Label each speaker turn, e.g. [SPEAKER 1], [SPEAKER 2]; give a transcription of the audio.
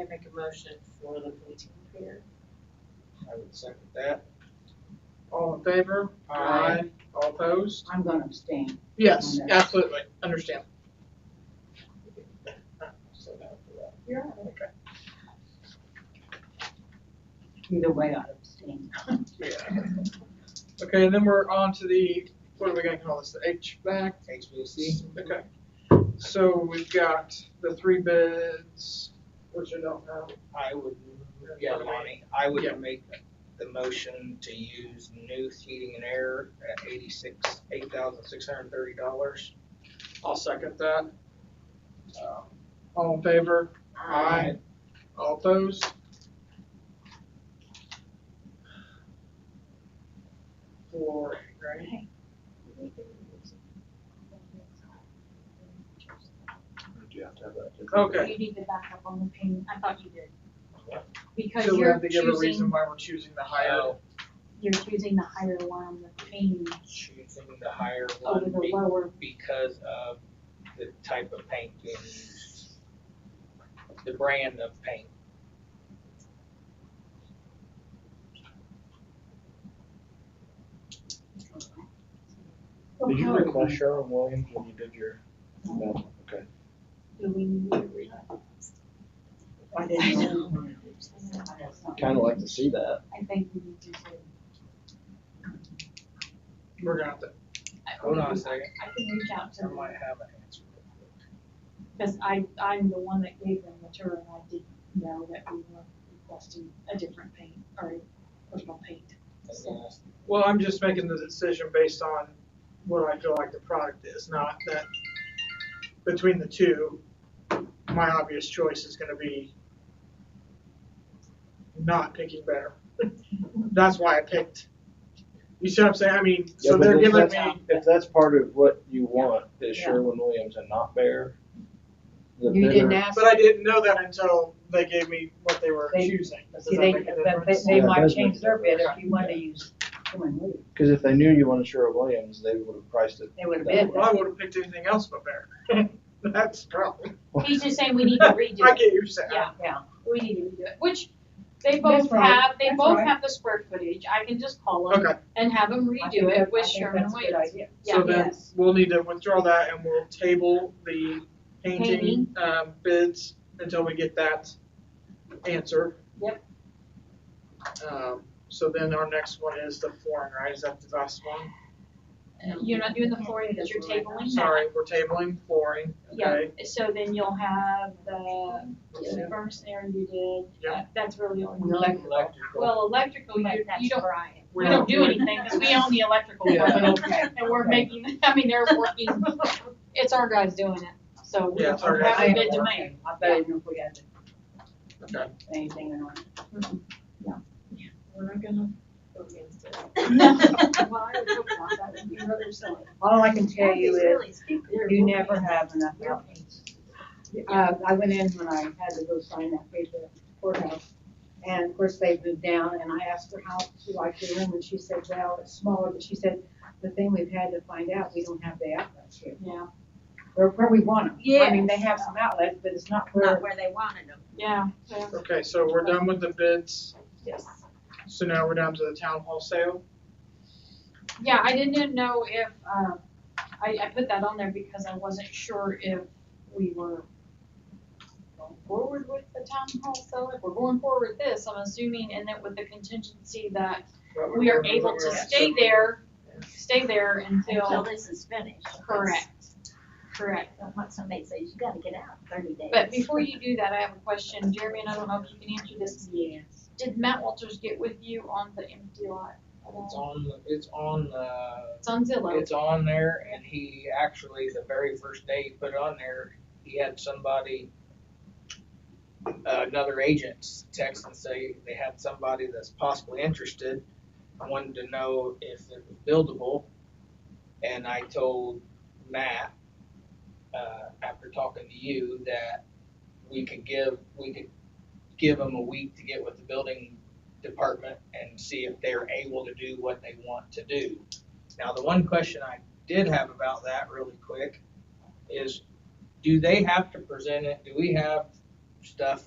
[SPEAKER 1] I make a motion for the police commissioner.
[SPEAKER 2] I would second that. All in favor?
[SPEAKER 1] Aye.
[SPEAKER 2] All opposed?
[SPEAKER 3] I'm gonna abstain.
[SPEAKER 4] Yes, absolutely, understand.
[SPEAKER 2] So now for that.
[SPEAKER 1] You're
[SPEAKER 3] Either way, I'd abstain.
[SPEAKER 2] Yeah.
[SPEAKER 4] Okay, and then we're on to the, what are we gonna call this, the HVAC?
[SPEAKER 2] HVAC,
[SPEAKER 4] Okay, so we've got the three bids, which I don't know.
[SPEAKER 2] I would, yeah, Lonnie, I
[SPEAKER 4] Yeah.
[SPEAKER 2] would make the motion to use new heating and air at eighty-six, eight thousand six hundred and thirty dollars.
[SPEAKER 4] I'll second that. Um, All in favor?
[SPEAKER 2] Aye.
[SPEAKER 4] All opposed? Four, right? Okay,
[SPEAKER 5] You need to back up on the payment, I thought you did. Because
[SPEAKER 4] so we
[SPEAKER 5] you're
[SPEAKER 4] have to give a reason
[SPEAKER 5] choosing,
[SPEAKER 4] why we're choosing the higher.
[SPEAKER 5] you're choosing the higher one, the paint
[SPEAKER 2] Choosing the higher
[SPEAKER 5] over
[SPEAKER 2] one
[SPEAKER 5] the
[SPEAKER 2] be-
[SPEAKER 5] lower.
[SPEAKER 2] because of the type of paint being used. The brand of paint.
[SPEAKER 6] Did you
[SPEAKER 5] Okay.
[SPEAKER 6] request Sharon Williams when you did your? No, okay.
[SPEAKER 5] Do we need to read?
[SPEAKER 3] I didn't know.
[SPEAKER 6] Kind of like to see that.
[SPEAKER 5] I think we need to. say-
[SPEAKER 4] We're gonna have to,
[SPEAKER 5] I-
[SPEAKER 2] Hold on a second,
[SPEAKER 5] I can reach out to
[SPEAKER 2] I
[SPEAKER 5] them,
[SPEAKER 2] might have an answer.
[SPEAKER 5] because I, I'm the one that gave them the tour and I didn't know that we were requesting a different paint or personal paint. So,
[SPEAKER 4] well, I'm just making the decision based on what I feel like the product is, not that between the two, my obvious choice is gonna be not picking better. That's why I picked. You see what I'm saying? I mean,
[SPEAKER 6] Yeah,
[SPEAKER 4] so
[SPEAKER 6] but
[SPEAKER 4] they're
[SPEAKER 6] if
[SPEAKER 4] giving
[SPEAKER 6] that's-
[SPEAKER 4] me,
[SPEAKER 6] If that's part of what you want, is
[SPEAKER 3] Yeah.
[SPEAKER 6] Sherwin Williams and not Bear? the
[SPEAKER 3] You didn't
[SPEAKER 6] bidder-
[SPEAKER 3] ask.
[SPEAKER 4] but I didn't know that until they gave me what they were
[SPEAKER 3] They-
[SPEAKER 4] choosing. Does
[SPEAKER 3] See,
[SPEAKER 4] that
[SPEAKER 3] they,
[SPEAKER 4] make a
[SPEAKER 3] but they,
[SPEAKER 4] difference?
[SPEAKER 3] they
[SPEAKER 6] Yeah, it
[SPEAKER 3] might
[SPEAKER 6] does
[SPEAKER 3] change
[SPEAKER 6] make a
[SPEAKER 3] their bid if
[SPEAKER 6] difference.
[SPEAKER 3] you wanted to use Sherwin Williams.
[SPEAKER 6] Cause if they knew you wanted Sherwin Williams, they would have priced it.
[SPEAKER 3] They would have
[SPEAKER 6] that
[SPEAKER 3] bid
[SPEAKER 4] Well, I
[SPEAKER 3] that.
[SPEAKER 4] would have picked anything else but bear. That's the problem.
[SPEAKER 6] way.
[SPEAKER 5] He's just saying we need to redo
[SPEAKER 4] I
[SPEAKER 5] it,
[SPEAKER 4] get you saying.
[SPEAKER 5] Yeah.
[SPEAKER 3] Yeah,
[SPEAKER 5] we need to redo it, which they
[SPEAKER 3] That's
[SPEAKER 5] both
[SPEAKER 3] right.
[SPEAKER 5] have, they
[SPEAKER 3] That's
[SPEAKER 5] both
[SPEAKER 3] right.
[SPEAKER 5] have the square footage, I can just call them
[SPEAKER 4] Okay,
[SPEAKER 5] and have them
[SPEAKER 3] I think
[SPEAKER 5] redo it
[SPEAKER 3] that- I
[SPEAKER 5] with
[SPEAKER 3] think
[SPEAKER 5] Sherman
[SPEAKER 3] that's a good
[SPEAKER 5] Williams.
[SPEAKER 3] idea.
[SPEAKER 4] so
[SPEAKER 5] Yeah,
[SPEAKER 4] then
[SPEAKER 5] yes.
[SPEAKER 4] we'll need to withdraw that and we'll table the painting,
[SPEAKER 5] Painting.
[SPEAKER 4] um, bids until we get that answer.
[SPEAKER 5] Yep.
[SPEAKER 4] Um, so then our next one is the flooring, right? Is that the last one?
[SPEAKER 5] You're not doing the flooring, because you're
[SPEAKER 3] Right.
[SPEAKER 5] tabling that.
[SPEAKER 4] Sorry, we're tabling flooring,
[SPEAKER 5] Yeah,
[SPEAKER 4] okay?
[SPEAKER 5] so then you'll have the
[SPEAKER 4] Yeah.
[SPEAKER 5] furnace there you did,
[SPEAKER 4] Yeah.
[SPEAKER 5] That- that's really all. you need.
[SPEAKER 3] Electrical.
[SPEAKER 5] Well, electrical, you, you don't,
[SPEAKER 3] Brian.
[SPEAKER 5] we don't do anything, because we own the electrical
[SPEAKER 4] Yeah.
[SPEAKER 5] part.
[SPEAKER 3] Okay.
[SPEAKER 5] And we're making, I mean, they're working, it's our guys doing it, so we
[SPEAKER 4] Yeah,
[SPEAKER 5] don't
[SPEAKER 4] it's our
[SPEAKER 5] have
[SPEAKER 4] guys
[SPEAKER 5] a
[SPEAKER 4] doing
[SPEAKER 5] bid
[SPEAKER 4] it.
[SPEAKER 5] to make.
[SPEAKER 3] I bet even if we had to
[SPEAKER 4] Okay.
[SPEAKER 3] say anything or not.
[SPEAKER 5] We're not gonna go against it. Well, I would hope not, that would be rather silly.
[SPEAKER 3] All I can tell you
[SPEAKER 5] It's
[SPEAKER 3] is,
[SPEAKER 5] really stupid.
[SPEAKER 3] You never have enough outreach. Uh, I went in when I had to go sign that paper at the courthouse, and of course they moved down, and I asked her how she liked the room, and she said, well, it's smaller, but she said, the thing we've had to find out, we don't have the outlets here,
[SPEAKER 5] Yeah,
[SPEAKER 3] or where we want them. I mean,
[SPEAKER 5] Yes.
[SPEAKER 3] they have some outlets, but it's not
[SPEAKER 7] not
[SPEAKER 3] where,
[SPEAKER 7] where they wanted them.
[SPEAKER 5] yeah, yeah,
[SPEAKER 4] Okay, so we're done with the bids.
[SPEAKER 5] yes.
[SPEAKER 4] So now we're down to the town hall sale.
[SPEAKER 5] Yeah, I didn't know if, um, I, I put that on there because I wasn't sure if we were going forward with the town hall, so if we're going forward with this, I'm assuming, and then with the contingency that we are able to stay there, stay there
[SPEAKER 7] Until
[SPEAKER 5] until,
[SPEAKER 7] this is finished.
[SPEAKER 5] correct, correct.
[SPEAKER 7] Don't want somebody to say, you gotta get out in thirty days.
[SPEAKER 5] But before you do that, I have a question, Jeremy, and I don't know if you can answer this.
[SPEAKER 7] Yes.
[SPEAKER 5] Did Matt Walters get with you on the empty lot? at
[SPEAKER 2] It's
[SPEAKER 5] all?
[SPEAKER 2] on, the- it's on, the.
[SPEAKER 5] It's on Zillow.
[SPEAKER 2] It's on there, and he actually, the very first day he put it on there, he had somebody, uh, another agent text and say they had somebody that's possibly interested, wanted to know if it was buildable. And I told Matt, uh, after talking to you, that we could give, we could give them a week to get with the building department and see if they're able to do what they want to do. Now, the one question I did have about that really quick is, do they have to present it, do we have stuff